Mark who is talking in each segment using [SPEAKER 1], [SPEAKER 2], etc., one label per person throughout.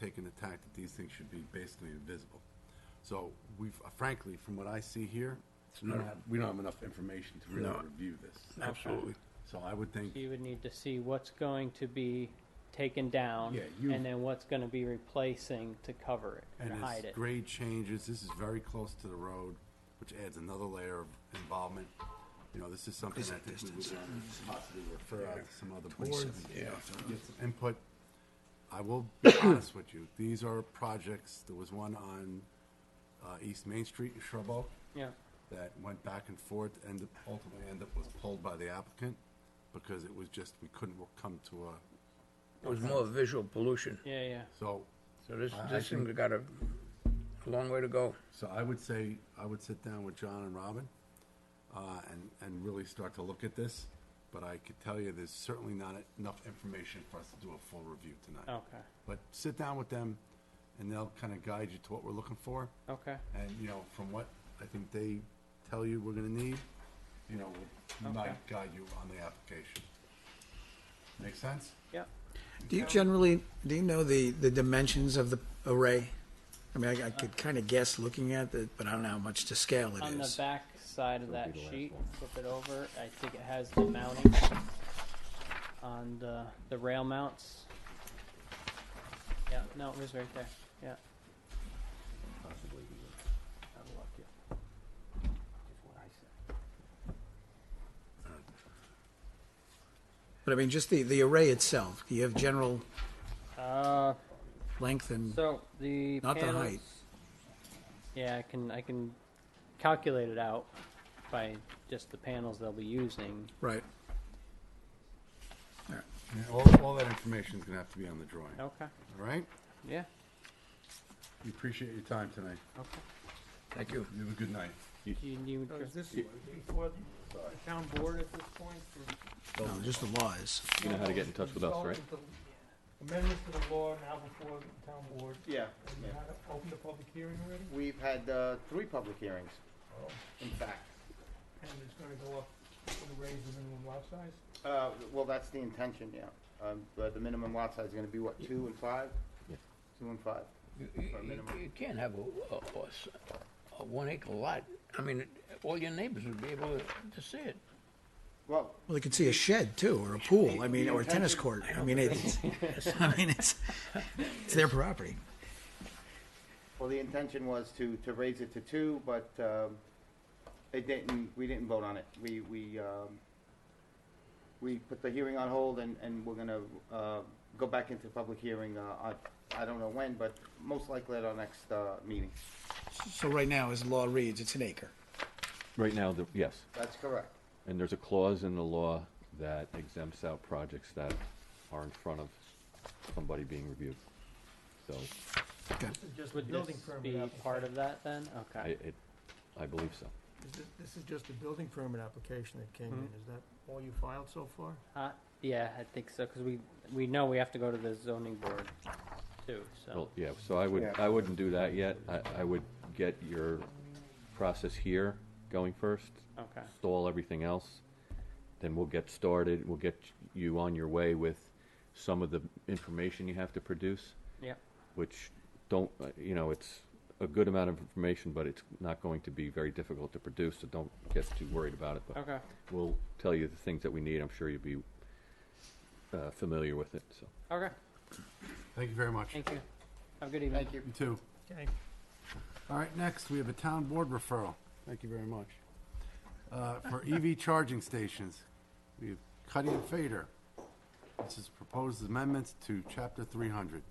[SPEAKER 1] taken the tack that these things should be basically invisible. So we've, uh, frankly, from what I see here, we don't have, we don't have enough information to really
[SPEAKER 2] No.
[SPEAKER 1] review this.
[SPEAKER 2] Absolutely.
[SPEAKER 1] So I would think,
[SPEAKER 3] You would need to see what's going to be taken down
[SPEAKER 1] Yeah, you-
[SPEAKER 3] and then what's going to be replacing to cover it and,
[SPEAKER 1] and
[SPEAKER 3] hide
[SPEAKER 1] it's
[SPEAKER 3] it.
[SPEAKER 1] grade changes, this is very close to the road, which adds another layer of involvement. You know, this is something I think we would possibly refer out to some other boards.
[SPEAKER 2] Yeah.
[SPEAKER 1] get some input. I will be honest with you, these are projects, there was one on, uh, East Main Street in Shrub Oak
[SPEAKER 3] Yeah.
[SPEAKER 1] that went back and forth and ultimately ended up was pulled by the applicant because it was just, we couldn't come to a,
[SPEAKER 2] It was more visual pollution.
[SPEAKER 3] Yeah, yeah.
[SPEAKER 1] so,
[SPEAKER 2] So this,
[SPEAKER 1] I- I
[SPEAKER 2] this thing's got a, a long way to go.
[SPEAKER 1] so I would say, I would sit down with John and Robin, uh, and, and really start to look at this. But I could tell you, there's certainly not enough information for us to do a full review tonight.
[SPEAKER 3] Okay.
[SPEAKER 1] But sit down with them and they'll kind of guide you to what we're looking for.
[SPEAKER 3] Okay.
[SPEAKER 1] And, you know, from what I think they tell you we're gonna need, you know, we might
[SPEAKER 3] Okay.
[SPEAKER 1] guide you on the application. Make sense?
[SPEAKER 3] Yeah.
[SPEAKER 4] Do you generally, do you know the, the dimensions of the array? I mean, I, I could kind of guess looking at it, but I don't know how much to scale it
[SPEAKER 3] On the
[SPEAKER 4] is.
[SPEAKER 3] back side of that sheet, flip it over. I think it has the mounting on the, the rail mounts. Yeah, no, it was right there. Yeah.
[SPEAKER 5] possibly he was out of luck here. Is what I said.
[SPEAKER 4] But I mean, just the, the array itself, do you have general
[SPEAKER 3] Uh,
[SPEAKER 4] length and,
[SPEAKER 3] so the
[SPEAKER 4] Not the
[SPEAKER 3] panels-
[SPEAKER 4] height.
[SPEAKER 3] Yeah, I can I can calculate it out by just the panels they'll be using.
[SPEAKER 4] right?
[SPEAKER 1] And all, all that information's gonna have to be on the drawing, all
[SPEAKER 3] Okay.
[SPEAKER 1] right?
[SPEAKER 3] Yeah.
[SPEAKER 1] We appreciate your time tonight.
[SPEAKER 3] Okay.
[SPEAKER 2] Thank you.
[SPEAKER 1] You have a good night.
[SPEAKER 3] Do you need
[SPEAKER 6] So Is
[SPEAKER 3] to-
[SPEAKER 6] this before the uh, town board at this point? for-
[SPEAKER 4] No, just the laws.
[SPEAKER 5] You know how to get in touch with us, right?
[SPEAKER 6] Amendments to the law now before the town board,
[SPEAKER 7] Yeah,
[SPEAKER 6] and you
[SPEAKER 7] yeah.
[SPEAKER 6] had to open the public hearing already,
[SPEAKER 7] We've had uh, three public hearings, in fact.
[SPEAKER 6] and it's gonna go up, to raise the minimum lot size?
[SPEAKER 7] Uh, Well, that's the intention, yeah. Um, But the minimum lot size is going to be, what, two and five?
[SPEAKER 5] Yeah.
[SPEAKER 7] Two and five.
[SPEAKER 2] You, you-
[SPEAKER 7] Or minimum.
[SPEAKER 2] you can't have a, a, a s- a one acre lot. I mean, it- all your neighbors would be able to see it.
[SPEAKER 7] Well,
[SPEAKER 4] Well, they could see a shed too, or a pool, I mean, or a tennis court. I mean, it's, I mean, it's, it's their property.
[SPEAKER 7] well, the intention was to, to raise it to two, but um, it didn't, we didn't vote on it. We, we, um, we put the hearing on hold and, and we're going to go back into public hearing, uh, on- I don't know when, but most likely at our next uh, meeting.
[SPEAKER 4] So right now, as the law reads, it's an acre.
[SPEAKER 5] Right now, the, yes,
[SPEAKER 7] That's correct.
[SPEAKER 5] and there's a clause in the law that exempts out projects that are in front of somebody being reviewed. So,
[SPEAKER 6] Just
[SPEAKER 3] Would this be part of that then?
[SPEAKER 5] I,
[SPEAKER 3] Okay.
[SPEAKER 5] it, I believe so.
[SPEAKER 6] This is just a building permit application that came in, is that all you filed so far?
[SPEAKER 3] Uh, yeah, I think so, because we, we know we have to go to the zoning board too, so.
[SPEAKER 5] Well, yeah, so I would, I wouldn't do that yet. I, I would get your process here going first.
[SPEAKER 3] Okay.
[SPEAKER 5] Stall everything else, then we'll get started. We'll get you on your way with some of the information you have to produce.
[SPEAKER 3] Yeah.
[SPEAKER 5] which don't, uh, you know, it's a good amount of information, but it's not going to be very difficult to produce, so don't get too worried about it. But
[SPEAKER 3] Okay.
[SPEAKER 5] we'll tell you the things that we need. I'm sure you'll be uh, familiar with it, so.
[SPEAKER 3] Okay.
[SPEAKER 1] Thank you very much.
[SPEAKER 3] Thank you. Have a good evening.
[SPEAKER 7] Thank you.
[SPEAKER 1] You too.
[SPEAKER 6] Okay.
[SPEAKER 1] All right, next, we have a town board referral. Thank you very much. Uh, For EV charging stations, we have Cuddy and Fader. This is proposed amendments to Chapter 300.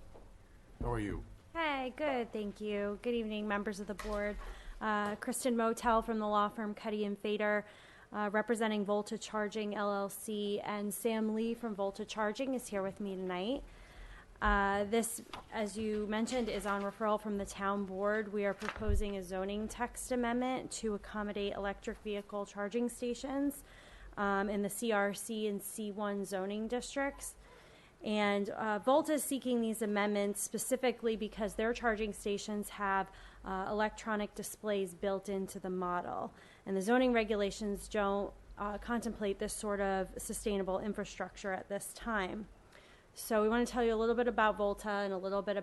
[SPEAKER 1] How are you?
[SPEAKER 8] Hi, good, thank you. Good evening, members of the board. Uh, Kristen Motel from the law firm Cuddy and Fader, uh, representing Volta Charging LLC, and Sam Lee from Volta Charging is here with me tonight. Uh, This, as you mentioned, is on referral from the town board. We are proposing a zoning text amendment to accommodate electric vehicle charging stations um, in the CRC and C1 zoning districts. And uh, Volta is seeking these amendments specifically because their charging stations have uh, electronic displays built into the model. And the zoning regulations don't uh, contemplate this sort of sustainable infrastructure at this time. So we want to tell you a little bit about Volta and a little bit